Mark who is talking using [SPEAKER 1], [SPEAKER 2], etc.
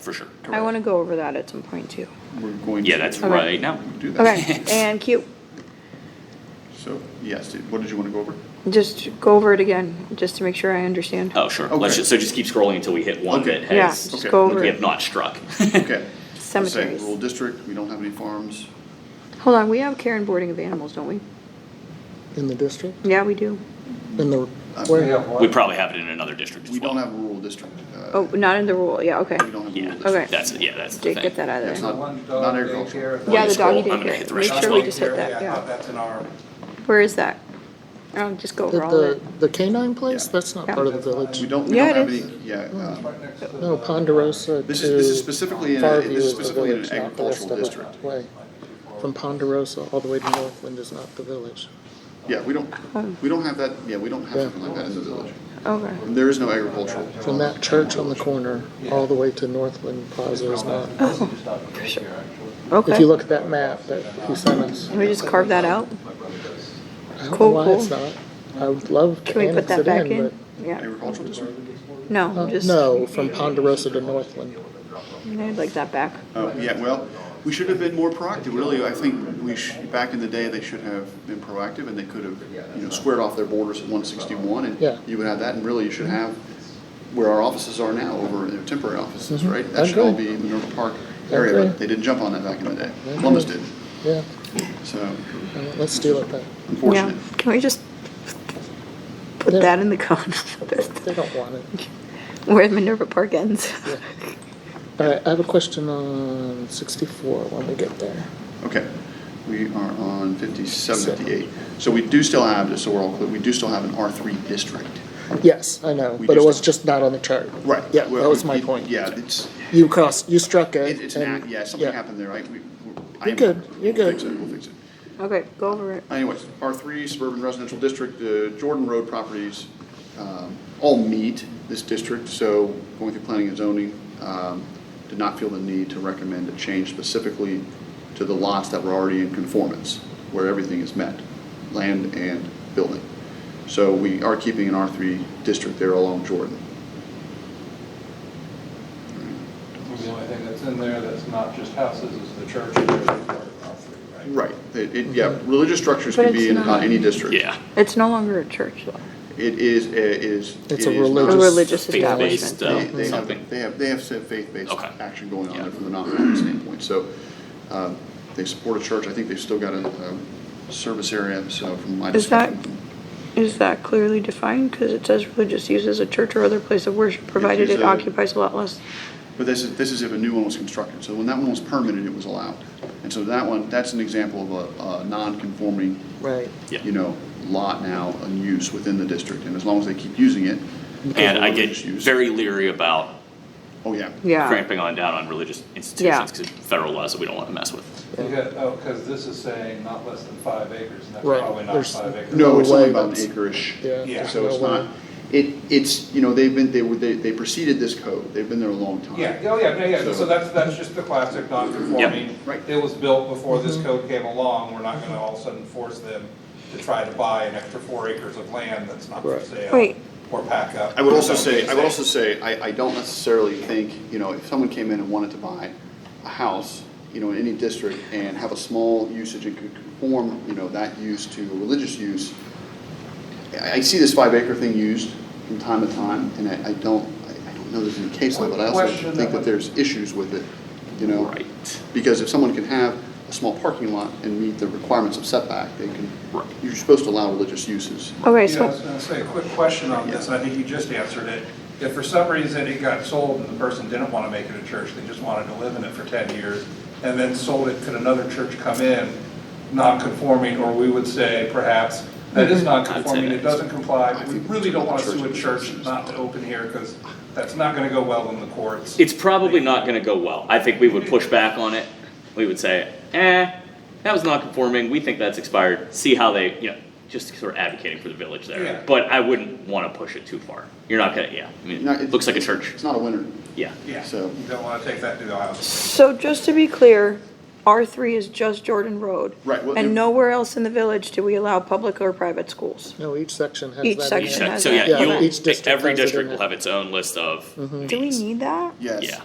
[SPEAKER 1] for sure.
[SPEAKER 2] I want to go over that at some point too.
[SPEAKER 3] We're going to.
[SPEAKER 1] Yeah, that's
[SPEAKER 2] Okay.
[SPEAKER 1] right now.
[SPEAKER 3] Do that.
[SPEAKER 2] Okay, and Q,
[SPEAKER 3] So, yes, what did you want to go over?
[SPEAKER 2] just go over it again, just to make sure I understand.
[SPEAKER 1] Oh, sure. Let's
[SPEAKER 3] Okay.
[SPEAKER 1] just, so just keep scrolling until we hit one
[SPEAKER 3] Okay.
[SPEAKER 1] that
[SPEAKER 2] Yeah,
[SPEAKER 1] has,
[SPEAKER 2] just
[SPEAKER 3] okay,
[SPEAKER 2] go over
[SPEAKER 1] we have
[SPEAKER 2] it.
[SPEAKER 1] not struck.
[SPEAKER 3] Okay. Let's say
[SPEAKER 2] Cemeteries.
[SPEAKER 3] Rural district, we don't have any farms.
[SPEAKER 2] Hold on, we have care and boarding of animals, don't we?
[SPEAKER 4] in the district,
[SPEAKER 2] Yeah, we do.
[SPEAKER 4] in the,
[SPEAKER 5] We
[SPEAKER 4] where,
[SPEAKER 5] have one.
[SPEAKER 1] We probably have it in another district as
[SPEAKER 3] We don't
[SPEAKER 1] well.
[SPEAKER 3] have a rural district. uh,
[SPEAKER 2] Oh, not in the rule, yeah, okay.
[SPEAKER 3] We don't have a
[SPEAKER 1] Yeah,
[SPEAKER 3] rural district.
[SPEAKER 2] Okay.
[SPEAKER 1] that's, yeah, that's the
[SPEAKER 2] Did get
[SPEAKER 1] thing.
[SPEAKER 2] that out
[SPEAKER 3] That's
[SPEAKER 2] of there.
[SPEAKER 3] not-
[SPEAKER 5] One
[SPEAKER 3] not
[SPEAKER 5] dog
[SPEAKER 3] agricultural.
[SPEAKER 5] daycare.
[SPEAKER 2] Yeah, the
[SPEAKER 1] Scroll,
[SPEAKER 2] doggy
[SPEAKER 1] I'm gonna hit
[SPEAKER 2] daycare,
[SPEAKER 1] the rest.
[SPEAKER 2] make sure we
[SPEAKER 1] Scroll.
[SPEAKER 2] just hit that,
[SPEAKER 5] I thought
[SPEAKER 2] yeah.
[SPEAKER 5] that's in our,
[SPEAKER 2] Where is that? Oh, just go
[SPEAKER 4] the,
[SPEAKER 2] over all of
[SPEAKER 4] the,
[SPEAKER 2] it.
[SPEAKER 4] the canine place,
[SPEAKER 3] Yeah.
[SPEAKER 4] that's not
[SPEAKER 2] Yeah.
[SPEAKER 4] part of the village.
[SPEAKER 3] We don't, we
[SPEAKER 2] Yeah,
[SPEAKER 3] don't have
[SPEAKER 2] it
[SPEAKER 3] any,
[SPEAKER 2] is.
[SPEAKER 3] yeah. uh,
[SPEAKER 5] right next to the.
[SPEAKER 4] No, Ponderosa
[SPEAKER 3] This is, this is
[SPEAKER 4] to
[SPEAKER 3] specifically, in a-
[SPEAKER 4] Farview
[SPEAKER 3] this is
[SPEAKER 4] is the
[SPEAKER 3] specifically in
[SPEAKER 4] village,
[SPEAKER 3] an
[SPEAKER 4] not the rest
[SPEAKER 3] agricultural
[SPEAKER 4] of it.
[SPEAKER 3] district.
[SPEAKER 4] Way.
[SPEAKER 2] Oh,
[SPEAKER 4] From Ponderosa all the way to Northland is not the village.
[SPEAKER 3] Yeah, we don't,
[SPEAKER 2] Um.
[SPEAKER 3] we don't have that, yeah, we don't have
[SPEAKER 4] Yeah.
[SPEAKER 3] something like that in the village.
[SPEAKER 2] Okay,
[SPEAKER 3] There is no agricultural.
[SPEAKER 4] From that church on the corner, all the way to Northland Plaza is not. If you
[SPEAKER 2] okay.
[SPEAKER 4] look at that map that he sent us,
[SPEAKER 2] Can we just carve that out?
[SPEAKER 4] I don't know
[SPEAKER 2] Cool,
[SPEAKER 4] why it's
[SPEAKER 2] cool.
[SPEAKER 4] not. I would love to
[SPEAKER 2] Can we put
[SPEAKER 4] annex
[SPEAKER 2] that
[SPEAKER 4] it
[SPEAKER 2] back
[SPEAKER 4] in,
[SPEAKER 2] in?
[SPEAKER 4] but,
[SPEAKER 2] Yeah,
[SPEAKER 3] Agricultural district?
[SPEAKER 2] no,
[SPEAKER 4] uh,
[SPEAKER 2] just,
[SPEAKER 4] no, from Ponderosa to Northland.
[SPEAKER 2] I'd like that back.
[SPEAKER 3] Oh, yeah, well, we should have been more proactive, really, I think we should, back in the day, they should have been proactive, and they could have, you know, squared off their borders at one sixty-one,
[SPEAKER 4] Yeah.
[SPEAKER 3] and you would have that, and really, you should have where our offices are now, over their temporary offices,
[SPEAKER 4] Mhm.
[SPEAKER 3] right? That should all
[SPEAKER 4] Agree.
[SPEAKER 3] be Minerva Park
[SPEAKER 4] Agree.
[SPEAKER 3] area, but they didn't jump on that back in the day, Columbus did,
[SPEAKER 4] Yeah,
[SPEAKER 3] so
[SPEAKER 4] all right, let's deal with that.
[SPEAKER 2] Yeah,
[SPEAKER 3] unfortunate.
[SPEAKER 2] can we just put
[SPEAKER 4] Yeah.
[SPEAKER 2] that in the code?
[SPEAKER 4] They don't want it.
[SPEAKER 2] Where Minerva Park ends.
[SPEAKER 4] All right, I have a question on sixty-four when we get there.
[SPEAKER 3] Okay, we are on fifty-seven, fifty-eight, so we do still have, just so we're all clear, we do still have an R three district.
[SPEAKER 4] Yes, I know,
[SPEAKER 3] We
[SPEAKER 4] but it
[SPEAKER 3] just-
[SPEAKER 4] was just not on the chart.
[SPEAKER 3] Right.
[SPEAKER 4] Yeah, that
[SPEAKER 3] well,
[SPEAKER 4] was my
[SPEAKER 3] it-
[SPEAKER 4] point.
[SPEAKER 3] Yeah, it's,
[SPEAKER 4] You crossed, you struck it.
[SPEAKER 3] It- It's
[SPEAKER 4] and-
[SPEAKER 3] an act, yeah, something
[SPEAKER 4] yeah.
[SPEAKER 3] happened there, right? We- we're- I
[SPEAKER 4] You're
[SPEAKER 3] am-
[SPEAKER 4] good, you're
[SPEAKER 3] We'll
[SPEAKER 4] good.
[SPEAKER 3] fix it, we'll fix it.
[SPEAKER 2] Okay, go over it.
[SPEAKER 3] Anyways, R three suburban residential district, the Jordan Road properties, um, all meet this district, so going through planning and zoning, um, did not feel the need to recommend a change specifically to the lots that were already in conformance, where everything is met, land and building. So we are keeping an R three district there along Jordan.
[SPEAKER 5] The only thing that's in there that's not just houses is the church. and the property, right?
[SPEAKER 3] Right, it, it- yeah,
[SPEAKER 4] Mm-hmm.
[SPEAKER 3] religious structures
[SPEAKER 2] But
[SPEAKER 3] can be
[SPEAKER 2] it's
[SPEAKER 3] in about
[SPEAKER 2] not-
[SPEAKER 3] any district.
[SPEAKER 1] Yeah.
[SPEAKER 2] It's no longer a church, though.
[SPEAKER 3] It is, it is. it
[SPEAKER 4] It's a
[SPEAKER 3] is not-
[SPEAKER 2] A
[SPEAKER 4] religious-
[SPEAKER 2] religious
[SPEAKER 1] Faith-based,
[SPEAKER 2] establishment.
[SPEAKER 1] uh,
[SPEAKER 3] They, they
[SPEAKER 1] something.
[SPEAKER 3] have, they have, they have said faith-based
[SPEAKER 1] Okay.
[SPEAKER 3] action going on
[SPEAKER 1] Yeah.
[SPEAKER 3] there from the nonprofit standpoint, so, um, they support a church, I think they've still got a, um service area, so from my
[SPEAKER 2] Is that-
[SPEAKER 3] discussion.
[SPEAKER 2] Is that clearly defined? Because it says religious use as a church or other place of worship, provided
[SPEAKER 3] used as
[SPEAKER 2] it
[SPEAKER 3] a-
[SPEAKER 2] occupies a lot less.
[SPEAKER 3] But this is, this is if a new one was constructed, so when that one was permitted, it was allowed, and so that one, that's an example of a, a non-conforming,
[SPEAKER 4] Right.
[SPEAKER 1] Yeah.
[SPEAKER 3] you know, lot now in use within the district, and as long as they keep using it.
[SPEAKER 1] And I get
[SPEAKER 3] religious use-
[SPEAKER 1] very leery about
[SPEAKER 3] Oh, yeah.
[SPEAKER 2] Yeah,
[SPEAKER 1] cramping on down on religious
[SPEAKER 2] Yeah.
[SPEAKER 1] institutions, because federal laws that we don't want to mess with.
[SPEAKER 5] You got, oh, because this is saying not less than five acres, and that's
[SPEAKER 4] Right,
[SPEAKER 5] probably not
[SPEAKER 4] there's-
[SPEAKER 5] five acres.
[SPEAKER 3] No, it's
[SPEAKER 4] No
[SPEAKER 3] only
[SPEAKER 4] way
[SPEAKER 3] about an
[SPEAKER 4] that's-
[SPEAKER 3] acre-ish.
[SPEAKER 4] Yeah.
[SPEAKER 5] Yeah.
[SPEAKER 4] there's
[SPEAKER 3] So
[SPEAKER 4] no
[SPEAKER 3] it's
[SPEAKER 4] way.
[SPEAKER 3] not, it, it's, you know, they've been, they were, they, they preceded this code, they've been there a long time.
[SPEAKER 5] Yeah, oh, yeah, yeah, yeah,
[SPEAKER 3] So-
[SPEAKER 5] so that's, that's just the classic non-conforming.
[SPEAKER 3] Right.
[SPEAKER 5] It was built before this code came along, we're not gonna all of a sudden force them to try to buy an extra four acres of land that's not for
[SPEAKER 4] Right.
[SPEAKER 5] sale.
[SPEAKER 2] Wait.
[SPEAKER 5] Or pack up.
[SPEAKER 3] I would also say, I would also say, I, I don't necessarily think, you know, if someone came in and wanted to buy a house, you know, in any district and have a small usage and could conform, you know, that use to religious use, I, I see this five acre thing used from time to time, and I, I don't, I I don't know there's any case law, but I also
[SPEAKER 5] Question
[SPEAKER 3] think that
[SPEAKER 5] that-
[SPEAKER 3] there's issues with it, you know?
[SPEAKER 1] Right.
[SPEAKER 3] Because if someone can have a small parking lot and meet the requirements of setback, they can,
[SPEAKER 1] Right.
[SPEAKER 3] you're supposed to allow religious uses.
[SPEAKER 2] okay,
[SPEAKER 5] Yeah, I was
[SPEAKER 2] so,
[SPEAKER 5] gonna say, a quick question on this, and I think you just answered it. If for some reason it got sold and the person didn't wanna make it a church, they just wanted to live in it for ten years, and then sold it, could another church come in, non-conforming, or we would say perhaps, that is non-conforming, it doesn't comply, but we really don't wanna sue a church not to open here, because that's not gonna go well in the courts.
[SPEAKER 1] It's probably not going to go well. I think we would push back on it. We would say, eh, that was non conforming. We think that's expired. See how they, you know, just sort of advocating for the village there.
[SPEAKER 5] Yeah.
[SPEAKER 1] But I wouldn't want to push it too far. You're not going to, yeah. I mean,
[SPEAKER 3] No,
[SPEAKER 1] it
[SPEAKER 3] it's-
[SPEAKER 1] looks like a church.
[SPEAKER 3] It's not a winner.
[SPEAKER 1] Yeah.
[SPEAKER 5] Yeah,
[SPEAKER 3] So-
[SPEAKER 5] you don't wanna take that to the house.
[SPEAKER 2] so just to be clear, R three is just Jordan Road.
[SPEAKER 3] Right, well, it-
[SPEAKER 2] And nowhere else in the village do we allow public or private schools.
[SPEAKER 4] No, each section has that.
[SPEAKER 2] Each
[SPEAKER 4] in it.
[SPEAKER 2] section.
[SPEAKER 1] Each sec-
[SPEAKER 2] has
[SPEAKER 1] so,
[SPEAKER 2] that.
[SPEAKER 1] yeah,
[SPEAKER 4] Yeah,
[SPEAKER 1] you'll,
[SPEAKER 4] each district
[SPEAKER 1] every
[SPEAKER 4] has it Mm-hmm. in
[SPEAKER 1] district will
[SPEAKER 4] it.
[SPEAKER 1] have its own list of
[SPEAKER 2] Do we
[SPEAKER 1] these.
[SPEAKER 2] need that?
[SPEAKER 3] Yes.
[SPEAKER 1] Yeah.